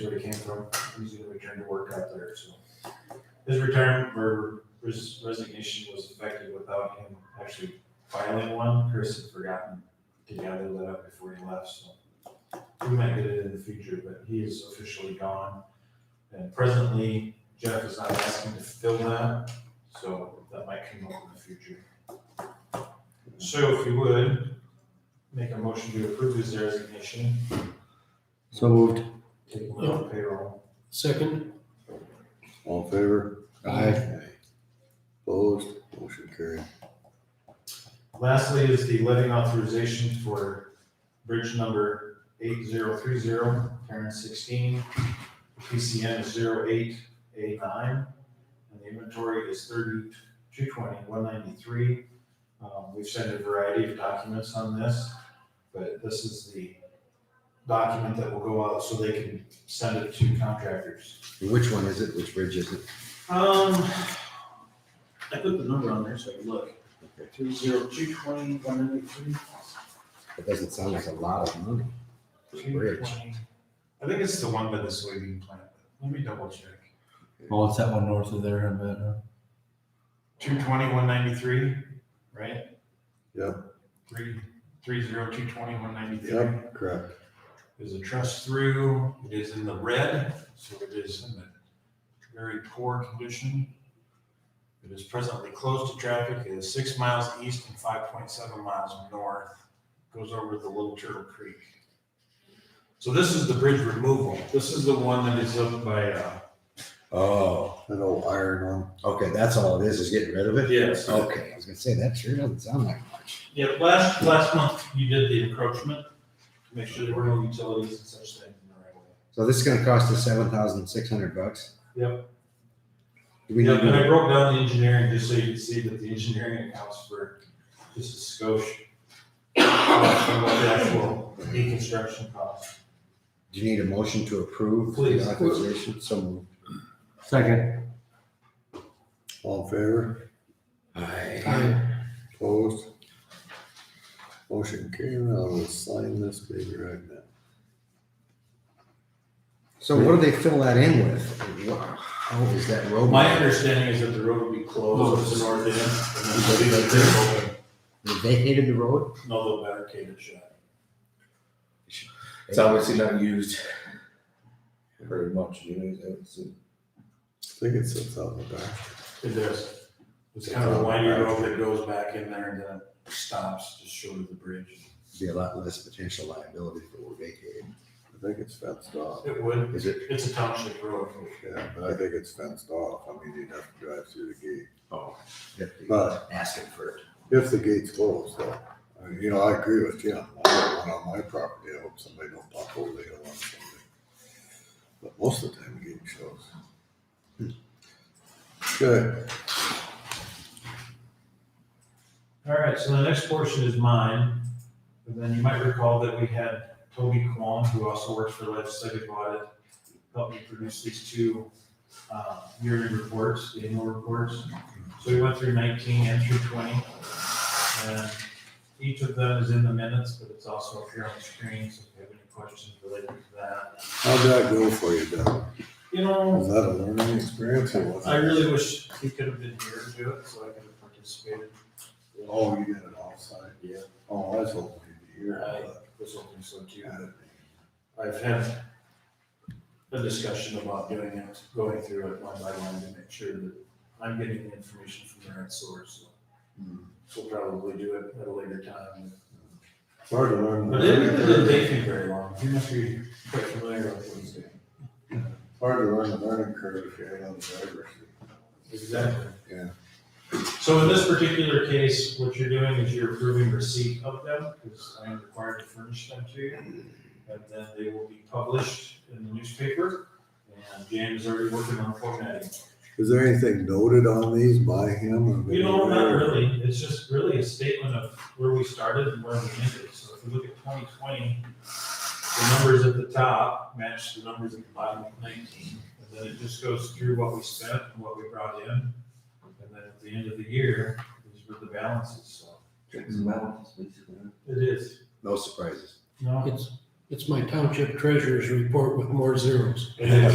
where he came from. He's gonna return to work out there, so. His retirement or res- resignation was effective without him actually filing one. Chris had forgotten to gather that up before he left, so. We might get it in the future, but he is officially gone. And presently Jeff is not asking to fill that, so that might come up in the future. So if you would, make a motion to approve his resignation, So moved. take him out of payroll. Second, All in favor? Aye. Opposed? Motion carried. Lastly is the letting authorization for bridge number eight zero three zero, Karen sixteen. PCN is zero eight eight nine, and the inventory is thirty-two twenty, one ninety-three. Um, we've sent a variety of documents on this, but this is the document that will go out so they can send it to contractors. Which one is it? Which bridge is it? Um, I put the number on there so I can look. Two zero two twenty, one ninety-three. It doesn't sound like a lot of money. Bridge. I think it's the one by the soybean plant. Let me double check. oh, it's that one north of there, I bet, huh? Two twenty, one ninety-three, right? Yep. Three, three zero, two twenty, one ninety-three. Yep, correct. There's a trust through. It is in the red, so it is in a very poor condition. It is presently closed to traffic. It is six miles east and five point seven miles north. Goes over the Little Turtle Creek. So this is the bridge removal. This is the one that is up by, uh, Oh, That old iron one. okay. That's all it is, is getting rid of it? Yes. Okay, I was gonna say, that sure doesn't sound like much. Yeah, last, last month you did the encroachment to make sure there were no utilities and such things in the right way. So this is gonna cost us seven thousand six hundred bucks? Yep. Do we need, Yeah, and I to- broke down the engineering just so you can see that the engineering accounts for just a skosh. of what The actual deconstruction cost. do you need a motion to approve? the Please. Authorization, so moved. Second. All in favor? Aye. Opposed? Motion carried. I will sign this baby right now. So what do they fill that in with? Wow, How is that road? My understanding is that the road will be Oh. closed at the north end. and then they'll be like, They vacated the road? No, they'll barricade it shut. It's obviously not used very much. you know, it's- I think it sits out in the back. It does. It's kind of a windy road that goes back in there and then it stops just short of the bridge. Be a lot less potential liability if it were vacated. I think it's fenced off. It would. Is it? It's a township road. Yeah, but I think it's fenced off. I mean, you'd have to drive through the gate. Oh. But- Asking for it. If the gate's closed, though, I mean, you know, I agree with Jim. I don't want on my property. I hope somebody don't pop over the hill on somebody. But most of the time, the gate shows. Good. All right, so the next portion is mine. And then you might recall that we had Toby Kwong, who also works for Legislative Audit, help me produce these two uh, yearly reports, the annual reports. So we went through nineteen and through twenty. And each of them is in the minutes, but it's also up here on the screen, so if you have any questions related to that. How'd that go for you, Doug? You know, Was that a learning experience or was it? I really wish he could have been here to do it, so I could have participated. Oh, you did it offside? Yeah. Oh, I was hoping you'd be here. I but- was hoping so too. Yeah. I've had a discussion about doing it, going through it line by line to make sure that I'm getting the information from the right source. Hmm. So We'll probably do it at a later time. It's hard to learn. But it really didn't take me very long. You must be quite familiar with what he's doing. It's hard to learn the learning curve if you're on the driver's seat. Exactly. Yeah. So in this particular case, what you're doing is you're approving receipt of them, because I am required to furnish them to you. And then they will be published in the newspaper, and James is already working on formatting. Is there anything noted on these by him? or You know, not anybody? really, it's just really a statement of where we started and where we ended, so if you look at twenty twenty, the numbers at the top match the numbers at the bottom of nineteen, and then it just goes through what we spent and what we brought in, and then at the end of the year, these were the balances, so. Checks and balances, basically. It is. No surprises. No, It's, It's my township treasurer's report with more zeros. And then